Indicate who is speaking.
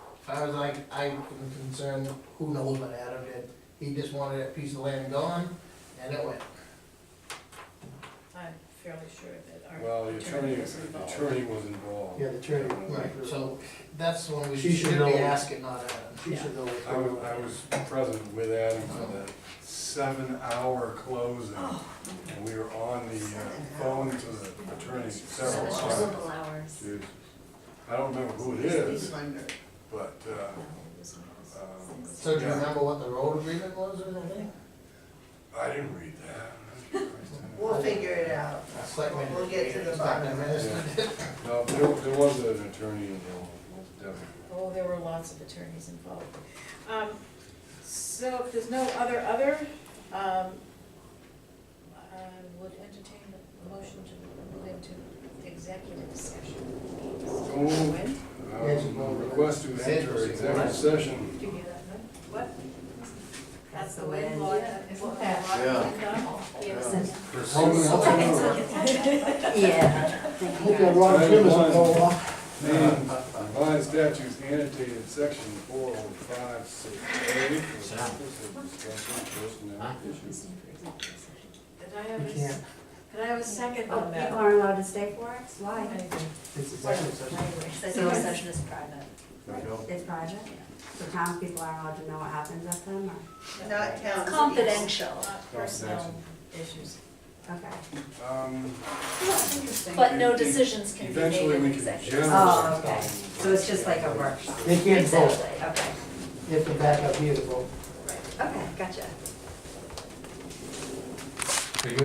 Speaker 1: I was like, I am concerned, who knows what Adam did, he just wanted that piece of land gone, and it went.
Speaker 2: I'm fairly sure that our.
Speaker 3: Well, the attorney,
Speaker 2: was
Speaker 3: the
Speaker 2: involved.
Speaker 3: attorney was involved.
Speaker 4: Yeah, the attorney.
Speaker 1: Right, so that's the one we
Speaker 4: She should
Speaker 1: should be
Speaker 4: know.
Speaker 1: asking, not Adam.
Speaker 4: She should know what's
Speaker 3: I
Speaker 4: going
Speaker 3: was,
Speaker 4: on.
Speaker 3: I was present with Adam for the seven-hour closing,
Speaker 2: Oh,
Speaker 3: and we were on the uh, phone to the attorney
Speaker 5: Seven
Speaker 3: several times.
Speaker 5: Billable hours.
Speaker 3: Jeez. I don't remember who it is,
Speaker 1: Slender.
Speaker 3: but,
Speaker 5: No,
Speaker 3: uh,
Speaker 5: it was like-
Speaker 3: um,
Speaker 1: So do you remember what the road agreement was or anything?
Speaker 3: I didn't read that.
Speaker 6: We'll figure it out.
Speaker 1: A selectman-
Speaker 6: We'll get to the
Speaker 1: it's not
Speaker 6: bottom of
Speaker 1: administered.
Speaker 3: No, there, there was an attorney involved, definitely.
Speaker 2: oh, there were lots of attorneys involved. Um, so if there's no other other, um, I would entertain the motion to move into executive session.
Speaker 3: So moved.
Speaker 2: When?
Speaker 3: Um, Request to enter executive session.
Speaker 2: Did you hear that, huh? What? That's the way
Speaker 5: wind.
Speaker 2: law,
Speaker 5: Yeah.
Speaker 2: law- law-
Speaker 3: Proponent of the
Speaker 5: Yeah.
Speaker 4: Hope that Ron Kim isn't going off.
Speaker 3: Maine Revised statutes annotated section four oh five six A. for purpose of discussing personnel issues.
Speaker 2: Did I have a,
Speaker 4: You
Speaker 2: s-
Speaker 4: can't.
Speaker 2: did I have a second
Speaker 5: Oh,
Speaker 2: on
Speaker 5: people
Speaker 2: that?
Speaker 5: aren't allowed to stay for it? Why?
Speaker 2: Anything?
Speaker 4: It's executive session.
Speaker 5: Executive session is private.
Speaker 3: There you go.
Speaker 5: It's private? So townspeople aren't allowed to know what happens at them or?
Speaker 6: Not towns.
Speaker 2: Not Personnel issues.
Speaker 5: Okay.
Speaker 3: Um,
Speaker 7: But no decisions can be made
Speaker 3: Eventually,
Speaker 7: in
Speaker 3: we can
Speaker 7: executive.
Speaker 3: generalize.
Speaker 5: Oh, okay. So it's just like a workshop.
Speaker 4: They can't vote
Speaker 7: Exactly.
Speaker 5: Okay,
Speaker 4: if the backup here to vote.
Speaker 5: okay, gotcha.